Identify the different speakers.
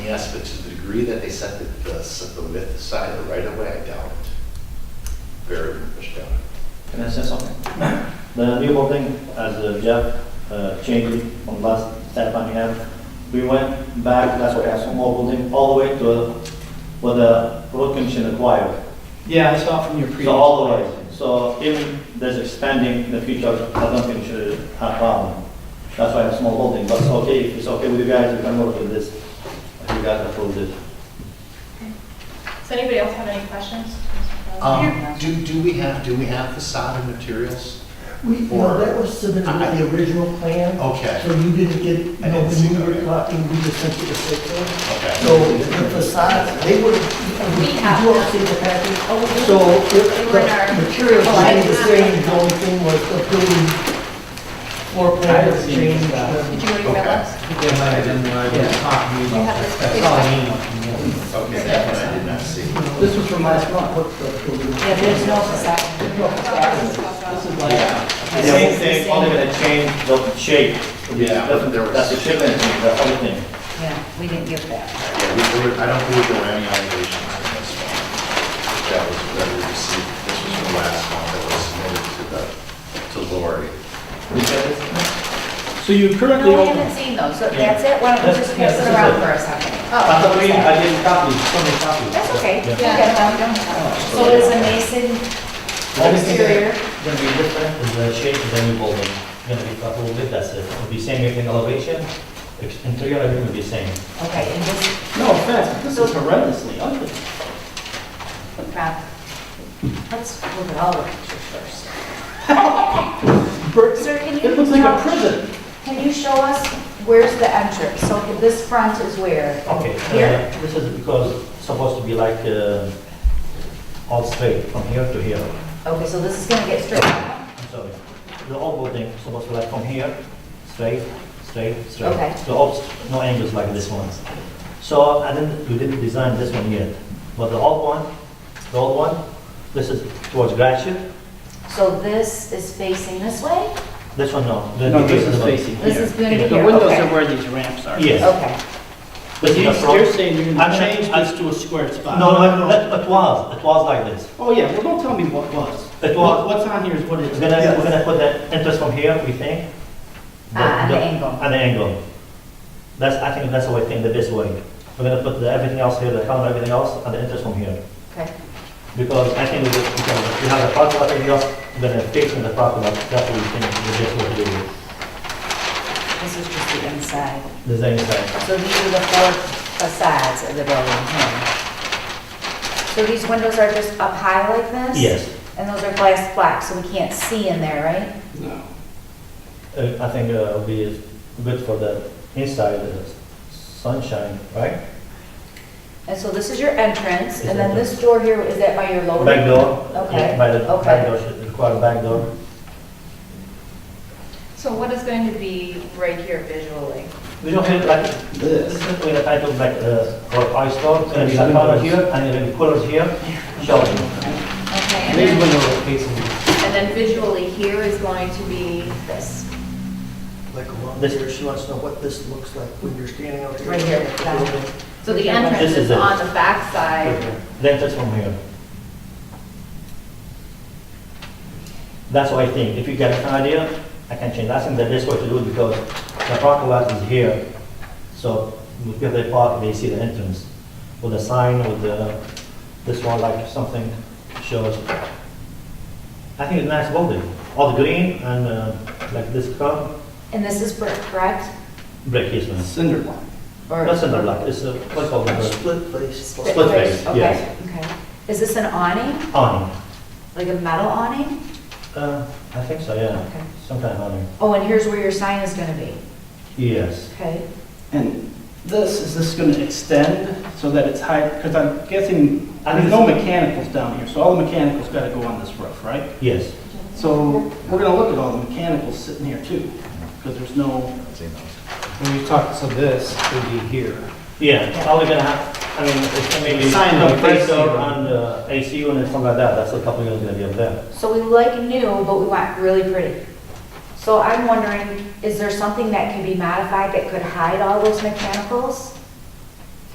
Speaker 1: Yes, but to the degree that they set the, the set the width aside or right away, I doubt it. Very much doubt it.
Speaker 2: Can I say something?
Speaker 3: The new building, as uh, Jeff uh, changed it from last step on here, we went back, that's why I have some more building, all the way to where the road commission acquired.
Speaker 2: Yeah, I saw from your previous.
Speaker 3: So all the way, so if there's expanding in the future, I don't think should have problem. That's why I have small building, but it's okay, if it's okay with you guys, you can work with this, if you guys approve it.
Speaker 4: Does anybody else have any questions?
Speaker 1: Um, do, do we have, do we have facade and materials?
Speaker 5: We,
Speaker 1: Or-
Speaker 5: no, that was submitted with the original plan.
Speaker 1: Oh, Okay.
Speaker 5: So you didn't get,
Speaker 1: I
Speaker 5: no,
Speaker 1: didn't see
Speaker 5: when you
Speaker 1: that.
Speaker 5: were talking, we just sent you the site plan.
Speaker 1: Okay.
Speaker 5: So the facades, they would, we
Speaker 4: We have
Speaker 5: do
Speaker 4: them.
Speaker 5: see the package.
Speaker 4: Oh, we do?
Speaker 5: So if
Speaker 4: They were in our-
Speaker 5: the materials
Speaker 4: Oh, I
Speaker 5: stayed the
Speaker 4: did not
Speaker 5: same,
Speaker 4: get
Speaker 5: the
Speaker 4: them.
Speaker 5: only thing was the building
Speaker 2: I
Speaker 5: floor plan
Speaker 2: didn't
Speaker 5: was
Speaker 2: see
Speaker 5: changed. Um,
Speaker 2: that.
Speaker 4: Did you already
Speaker 1: Okay.
Speaker 4: realize?
Speaker 2: Yeah, but I didn't, I was talking
Speaker 4: You
Speaker 2: about
Speaker 4: have this
Speaker 2: this. That's all I need.
Speaker 1: Okay, that one I did not see.
Speaker 5: This was from last month, what the building.
Speaker 6: Yeah, there's no facade.
Speaker 3: The same thing, only gonna change the shape.
Speaker 1: Yeah, but there was-
Speaker 3: That's the shape and the other thing.
Speaker 6: Yeah, we didn't give that.
Speaker 1: Yeah, we, there were- I don't believe there were any allegations on this one. That was, that we received, this was the last one that was submitted to the, to Lori.
Speaker 2: So you currently
Speaker 6: No, we
Speaker 2: own,
Speaker 6: haven't seen those, so that's it, why don't we
Speaker 3: That's-
Speaker 6: just
Speaker 3: yeah,
Speaker 6: pass
Speaker 3: this
Speaker 6: it
Speaker 3: is
Speaker 6: around
Speaker 3: it.
Speaker 6: for a second?
Speaker 3: I
Speaker 6: Oh,
Speaker 3: thought we, I didn't copy, somebody copied.
Speaker 6: That's okay, we
Speaker 4: Yeah.
Speaker 6: got them, we don't have them. So there's a mason
Speaker 3: Anything
Speaker 6: exterior,
Speaker 3: that's gonna be different is the shape of the new building, It's gonna be a little bit, that's it. It'll be same everything elevation, ex- interior, everything will be same.
Speaker 6: okay, and this,
Speaker 2: no offense, but this is horrendously ugly.
Speaker 6: Rob, let's look at all the pictures first.
Speaker 2: Bert,
Speaker 6: Sir, can
Speaker 2: It looks
Speaker 6: you
Speaker 2: like a
Speaker 6: tell,
Speaker 2: prison.
Speaker 6: can you show us where's the entrance? So this front is where?
Speaker 3: Okay,
Speaker 6: Here?
Speaker 3: uh, this is because it's supposed to be like, uh, all straight from here to here.
Speaker 6: Okay, so this is gonna get straight.
Speaker 3: I'm sorry. The old building is supposed to be like from here, straight, straight, straight.
Speaker 6: Okay.
Speaker 3: So all, no angles like this one. So I didn't, we didn't design this one yet, but the old one, the old one, this is towards Gratiot.
Speaker 6: So this is facing this way?
Speaker 3: This one, no. The-
Speaker 2: No, this is
Speaker 3: one.
Speaker 2: facing
Speaker 6: This
Speaker 2: here.
Speaker 6: is gonna be
Speaker 2: The
Speaker 6: here,
Speaker 2: windows
Speaker 6: okay.
Speaker 2: are where these ramps are.
Speaker 3: Yes.
Speaker 6: Okay.
Speaker 3: This is
Speaker 2: You're
Speaker 3: the
Speaker 2: you're
Speaker 3: front.
Speaker 2: saying you're
Speaker 3: I'm
Speaker 2: gonna
Speaker 3: not-
Speaker 2: change
Speaker 3: I'm-
Speaker 2: this to a square spot.
Speaker 3: No, no, it it was, it was like this.
Speaker 2: Oh, yeah, well, don't tell me what was.
Speaker 3: It was-
Speaker 2: What- What's on here is what it
Speaker 3: We're
Speaker 2: is.
Speaker 3: gonna, we're gonna put the entrance from here, we think.
Speaker 6: Ah, at the angle.
Speaker 3: At the angle. That's, I think that's the way, think the best way. We're gonna put the, everything else here, the counter, everything else, and the entrance from here.
Speaker 6: Okay,
Speaker 3: Because I think we just- we can, we have the parking lot, everything else, we're gonna fix in the parking lot, that's what we think the best way to do it.
Speaker 6: this is just the inside.
Speaker 3: Design side.
Speaker 6: So these are the four facades of the building here. So these windows are just up high like this?
Speaker 3: Yes,
Speaker 6: And those are glass black, so we can't see in there, right?
Speaker 2: No.
Speaker 3: Uh, I think uh, it'll be good for the inside, the sunshine, right?
Speaker 6: And so this is your entrance,
Speaker 3: Is
Speaker 6: and then this door here, is that by your lower?
Speaker 3: Back door.
Speaker 6: Okay,
Speaker 3: Yeah, By the back
Speaker 6: okay.
Speaker 3: door, should require a back door.
Speaker 4: So what is going to be right here visually?
Speaker 3: We don't have like this. We have kind of like uh, or ice store, and we have color here and we have colors here showing.
Speaker 4: Okay, and
Speaker 2: These
Speaker 4: then,
Speaker 2: windows are facing,
Speaker 4: and then visually here is going to be this.
Speaker 5: Like along
Speaker 3: This-
Speaker 5: here, she wants to know what this looks like when you're standing out here.
Speaker 6: Right here, that one.
Speaker 4: So the entrance
Speaker 3: This is
Speaker 4: is
Speaker 3: it.
Speaker 4: on the back side.
Speaker 3: Then that's from here. That's what I think. If you get an idea, I can change. I think that that's what to do it because the parking lot is here. So if they park, they see the entrance with the sign with the, this one like something shows. I think it's a nice building. All the green and uh, like this color,
Speaker 6: And this is brick, correct?
Speaker 3: brick is nice.
Speaker 2: cinder block.
Speaker 6: Or-
Speaker 3: That's another like, it's a, what's called the uh, brick?
Speaker 5: Split face.
Speaker 6: Split
Speaker 3: split
Speaker 6: face,
Speaker 3: face,
Speaker 6: okay,
Speaker 3: yes.
Speaker 6: Okay. Is this an awning,
Speaker 3: awning.
Speaker 6: like a metal awning?
Speaker 3: Uh, I think so, yeah.
Speaker 6: Okay.
Speaker 3: Some kind of awning.
Speaker 6: Oh, and here's where your sign is gonna be,
Speaker 3: Yes.
Speaker 6: okay?
Speaker 2: And this, is this going to extend so that it's high, because I'm guessing,
Speaker 3: I
Speaker 2: there's
Speaker 3: think
Speaker 2: no mechanicals down here, so all the mechanicals got to go on this roof, right?
Speaker 3: Yes,
Speaker 2: So we're going to look at all the mechanicals sitting here too, because there's no,
Speaker 7: When you talk, so this would be here.
Speaker 3: yeah, are we gonna have, I mean, it's maybe
Speaker 7: Sign of AC
Speaker 3: compressor
Speaker 7: unit.
Speaker 3: and uh, AC unit, something like that, that's a couple of years gonna be up there.
Speaker 6: So we like new, but we want really pretty. So I'm wondering, is there something that can be modified that could hide all those mechanicals?